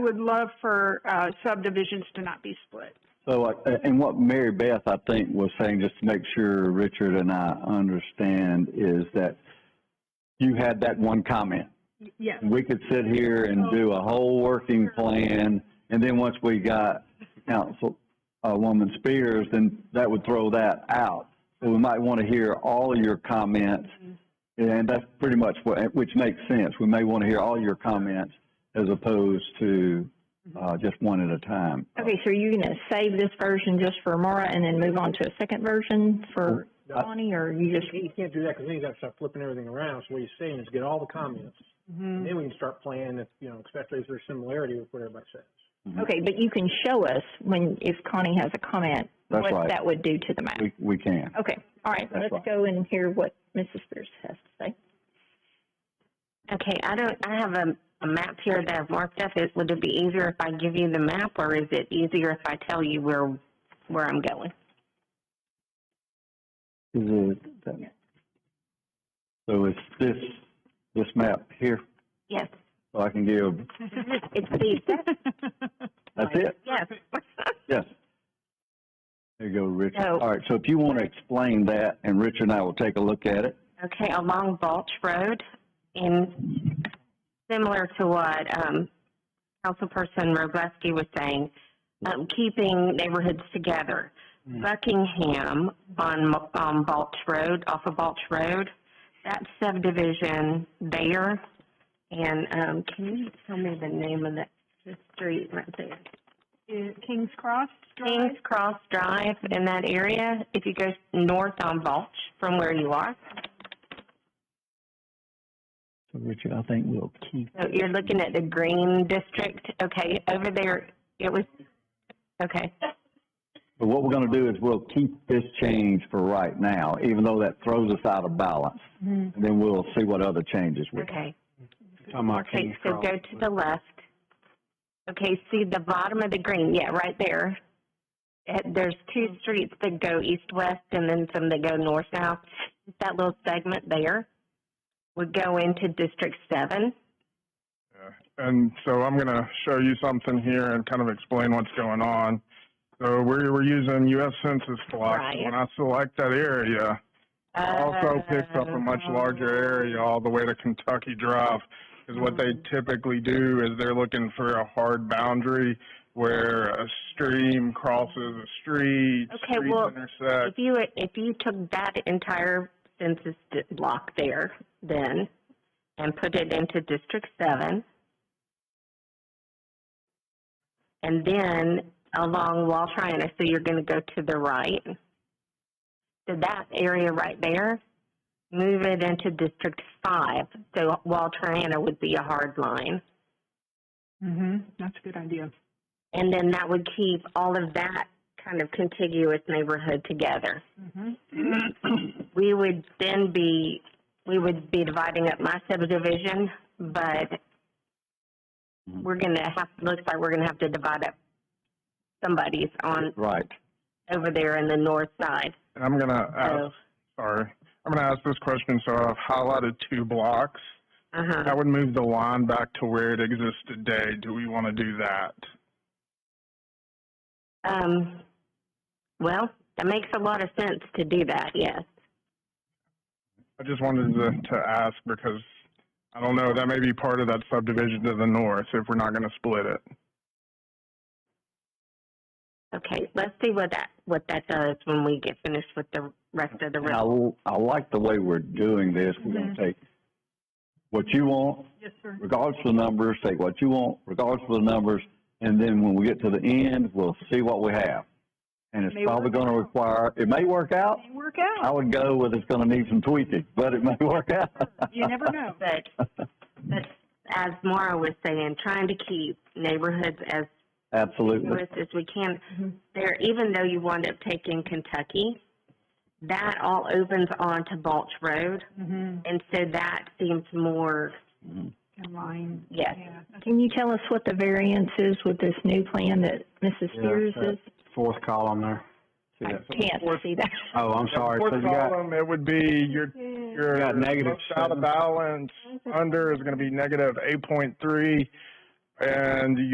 would love for uh, subdivisions to not be split. So, like, a- and what Mary Beth, I think, was saying, just to make sure Richard and I understand, is that you had that one comment. Yes. We could sit here and do a whole working plan, and then once we got Council, uh, Woman Spears, then that would throw that out. So we might want to hear all your comments, and that's pretty much what, which makes sense. We may want to hear all your comments as opposed to, uh, just one at a time. Okay, so are you gonna save this version just for Mara and then move on to a second version for No. Bonnie, or you just, You can't do that because then you got to start flipping everything around. So what he's saying is get all the comments. Mm-hmm. And then we can start playing, if, you know, especially if there's similarity with what everybody says. okay, but you can show us when, if Connie has a comment, That's what right. that would do to the map. We, we can. Okay, all right, That's let's right. go and hear what Mrs. Spears has to say. Okay, I don't, I have a, a map here that I've marked up. Is, would it be easier if I give you the map or is it easier if I tell you where, where I'm going? Is it, that- so it's this, this map here, Yes, so I can give, it's the, that's it, yes. yes. There you go, Richard. No. All right, so if you want to explain that, and Richard and I will take a look at it. Okay, along Balch Road and similar to what, um, Councilperson Robleski was saying, um, keeping neighborhoods together. Buckingham on, um, Balch Road, off of Balch Road, that subdivision there. And, um, can you tell me the name of that, the street right there? Kings Cross Drive? Kings Cross Drive in that area, if you go north on Balch from where you are. So Richard, I think we'll keep. So you're looking at the green district, okay, over there, it was, okay, But what we're going to do is we'll keep this change for right now, even though that throws us out of balance. And Mm-hmm. then we'll see what other changes we can. okay. Talking about Okay, so go to the left. Okay, see the bottom of the green, yeah, right there. Uh, There's two streets that go east-west and then some that go north-south. That little segment there would go into District Seven. And so I'm going to show you something here and kind of explain what's going on. So we're, we're using U.S. Census blocks. Right. When I select that area, it also picks up a much larger area all the way to Kentucky Drive. Because what they Mm-hmm. typically do is they're looking for a hard boundary where a stream crosses a street, Okay, streets well, If intersect. you, if you took that entire census di- block there then and put it into District Seven, and then along Wall Triana, so you're gonna go to the right. So that area right there, move it into District Five, so Wall Triana would be a hard line. Mm-hmm, that's a good idea. And then that would keep all of that kind of contiguous neighborhood together. Mm-hmm. we would then be, we would be dividing up my subdivision, but we're gonna have, looks like we're gonna have to divide up somebody's on, Right. over there in the north side. And I'm going to ask, So, sorry, I'm going to ask this question. So I've highlighted two blocks. I uh-huh. would move the line back to where it exists today. Do we want to do that? Um, well, that makes a lot of sense to do that, yes. I just wanted to, to ask because I don't know, that may be part of that subdivision to the north if we're not going to split it. Okay, let's see what that, what that does when we get finished with the rest of the And I, road. l- I like the way we're doing this. We're going to take what you want, Yes, sir. regardless of the numbers, take what you want, regardless of the numbers, and then when we get to the end, we'll see what we have. And it's May probably work gonna require, it may work out. May work I out, would go with it's gonna need some tweaking, but it may work out. you never know. but but as Mara was saying, trying to keep neighborhoods as Absolutely. diverse as we can. There, even though you wind up taking Kentucky, that all opens onto Balch Road, Mm-hmm. and so that seems more Mm-hmm. In line, yes. yeah. Can you tell us what the variance is with this new plan that Mrs. Spears is? Fourth column there. I So can't fourth- see that. Oh, I'm Fourth column, it would be your, your got negative most out of seven. balance under is going to be negative 8.3 and